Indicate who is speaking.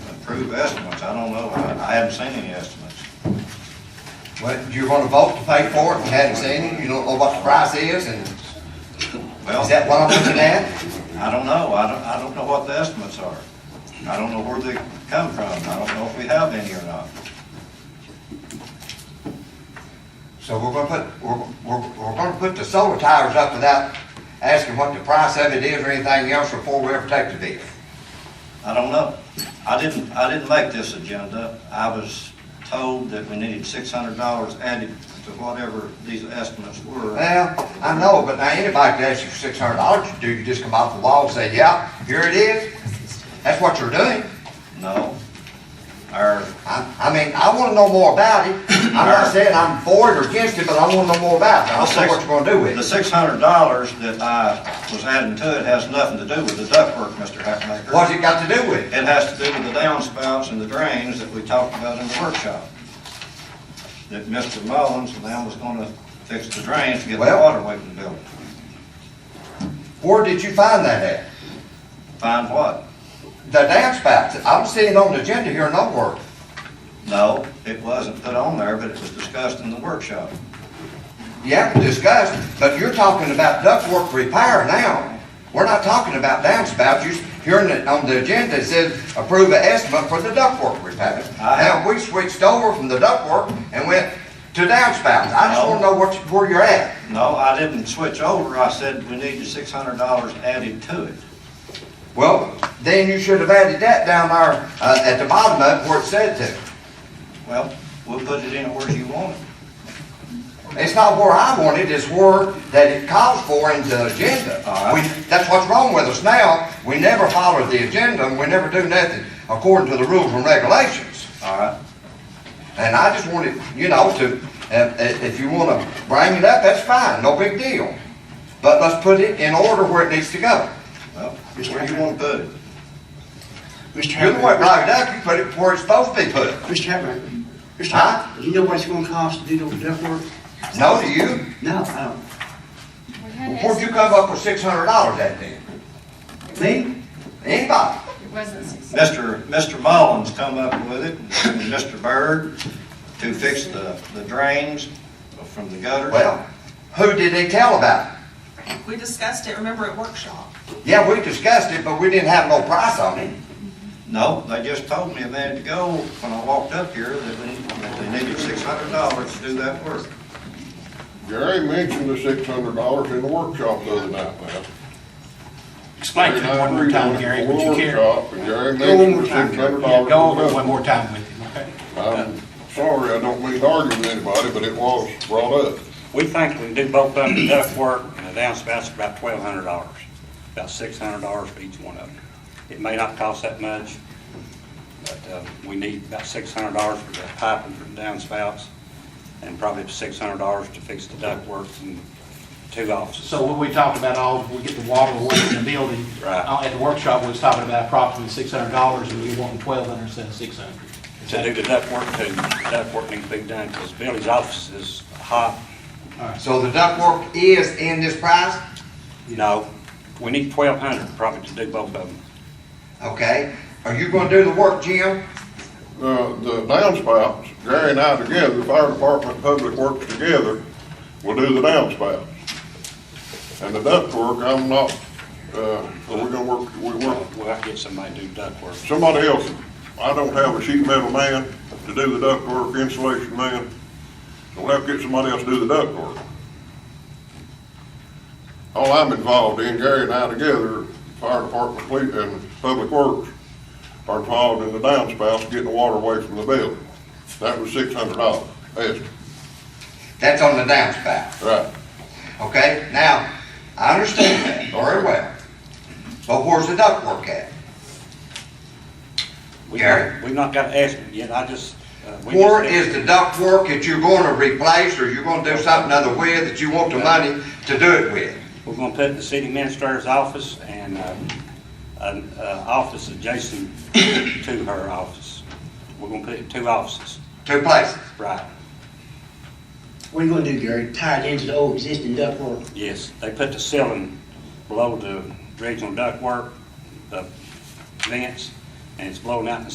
Speaker 1: approve estimates, I don't know, I I haven't seen any estimates.
Speaker 2: Well, you're gonna vote to pay for it and hadn't seen it, you don't know what the price is, and is
Speaker 1: Well,
Speaker 2: that what I'm looking at?
Speaker 1: I don't know, I don't, I don't know what the estimates are. I don't know where they come from, I don't know if we have any or not.
Speaker 2: So we're gonna put, we're, we're, we're gonna put the solar tires up without asking what the price of it is or anything else before we ever take the bid.
Speaker 1: I don't know. I didn't, I didn't make this agenda. I was told that we needed six hundred dollars added to whatever these estimates were.
Speaker 2: Well, I know, but now anybody could ask you for six hundred dollars, you do, you just come off the wall and say, yeah, here it is. That's what you're doing.
Speaker 1: No. Our,
Speaker 2: I, I mean, I wanna know more about it. I'm not saying I'm for it or against it, but I wanna know more about it. I don't know what you're gonna do with
Speaker 1: the
Speaker 2: it.
Speaker 1: six hundred dollars that I was adding to it has nothing to do with the ductwork, Mr. Hackmaker.
Speaker 2: What's it got to do with it?
Speaker 1: It has to do with the downspouts and the drains that we talked about in the workshop. That Mr. Mullins and them was gonna fix the drains to get the
Speaker 2: Well-
Speaker 1: water away from the building.
Speaker 2: Where did you find that at?
Speaker 1: Find what?
Speaker 2: The downspouts, I'm seeing on the agenda here nowhere.
Speaker 1: No, it wasn't put on there, but it was discussed in the workshop.
Speaker 2: Yeah, we discussed, but you're talking about ductwork repair now. We're not talking about downspouts, you, here in the, on the agenda, it says approve an estimate for the ductwork repair.
Speaker 1: I-
Speaker 2: Now, we switched over from the ductwork and went to downspouts, I just wanna know what, you- where you're at.
Speaker 1: No, I didn't switch over, I said we needed six hundred dollars added to it.
Speaker 2: Well, then you should have added that down there, uh, at the bottom of it where it said to.
Speaker 1: Well, we'll put it in where you want it.
Speaker 2: It's not where I want it, it's where that it calls for in the agenda.
Speaker 1: All right.
Speaker 2: We- That's what's wrong with us now, we never follow the agenda, and we never do nothing according to the rules and regulations.
Speaker 1: All right,
Speaker 2: And I just wanted, you know, to, uh, if if you wanna bring it up, that's fine, no big deal. But let's put it in order where it needs to go.
Speaker 1: well, where you want to put it.
Speaker 3: Mr.
Speaker 2: You can work
Speaker 3: Hackman,
Speaker 2: right up, you put it where it's supposed to be put.
Speaker 3: Mr. Hackman, Mr.
Speaker 2: Huh?
Speaker 3: Hackman, do you know what it's gonna cost to do the duck work?
Speaker 2: No to you,
Speaker 3: No, uh, I
Speaker 4: We had
Speaker 2: where'd you come up with six hundred dollars that day?
Speaker 3: don't. Me?
Speaker 2: Anybody?
Speaker 4: asked- It wasn't six.
Speaker 1: Mr. Mr. Mullins come up with it, and Mr. Byrd, to fix the, the drains from the gutters.
Speaker 2: Well, who did they tell about? it?
Speaker 5: We discussed it, remember, at workshop.
Speaker 2: Yeah, we discussed it, but we didn't have no price on it.
Speaker 1: No, they just told me a minute ago, when I walked up here, that we, that they needed six hundred dollars to do that work.
Speaker 6: Gary mentioned the six hundred dollars in the workshop the other night, man.
Speaker 7: Explain to him one more time, Gary, would you care? Go
Speaker 6: Workshop, and Gary
Speaker 7: one
Speaker 6: mentioned
Speaker 7: more
Speaker 6: the
Speaker 7: time,
Speaker 6: six
Speaker 7: Gary.
Speaker 6: hundred
Speaker 7: Yeah,
Speaker 6: dollars.
Speaker 7: Go over it one more time with him, okay?
Speaker 6: I'm sorry, I don't mean to argue with anybody, but it was brought up.
Speaker 8: We think we can do both of them, the duct work and the downspouts, about twelve hundred dollars, about six hundred dollars for each one of them. It may not cost that much, but, uh, we need about six hundred dollars for the piping for the downspouts, and probably six hundred dollars to fix the duct work and two offices.
Speaker 7: So what we talked about, all, we get the water away from the building.
Speaker 8: Right.
Speaker 7: Uh, At the workshop, we was talking about approximately six hundred dollars, and we want twelve hundred instead of six hundred.
Speaker 8: To do the duct work, too, the duct work needs to be done, because Billy's office is hot,
Speaker 2: So the ductwork is in this price,
Speaker 8: you know, we need twelve hundred probably to do both of them.
Speaker 2: okay? Are you gonna do the work, Jim?
Speaker 6: Uh, the downspouts, Gary and I together, the fire department, public works together, will do the downspouts. And the ductwork, I'm not, uh, we're gonna work, we work,
Speaker 8: We'll have to get somebody to do duct work.
Speaker 6: somebody else, I don't have a sheet metal man to do the ductwork, insulation man, so we'll have to get somebody else to do the ductwork. All I'm involved in, Gary and I together, fire department, police, and public works, are involved in the downspouts, getting the water away from the building. That was six hundred dollars, estimate,
Speaker 2: That's on the downspout,
Speaker 6: right.
Speaker 2: okay? Now, I understand that very well, but where's the ductwork at?
Speaker 8: We-
Speaker 2: Gary?
Speaker 8: We've not got an estimate yet, I just. uh, we
Speaker 2: Where
Speaker 8: just-
Speaker 2: is the ductwork that you're gonna replace, or you're gonna do something other with that you want the money to do it with?
Speaker 8: We're gonna put it in the city administrator's office and, uh, an, uh, office adjacent to her office. We're gonna put it in two offices,
Speaker 2: Two places,
Speaker 8: right,
Speaker 3: What are you gonna do, Gary? Tie it into the old existing duck work?
Speaker 8: yes. They put the ceiling below the regional ductwork, the vents, and it's blowing out in the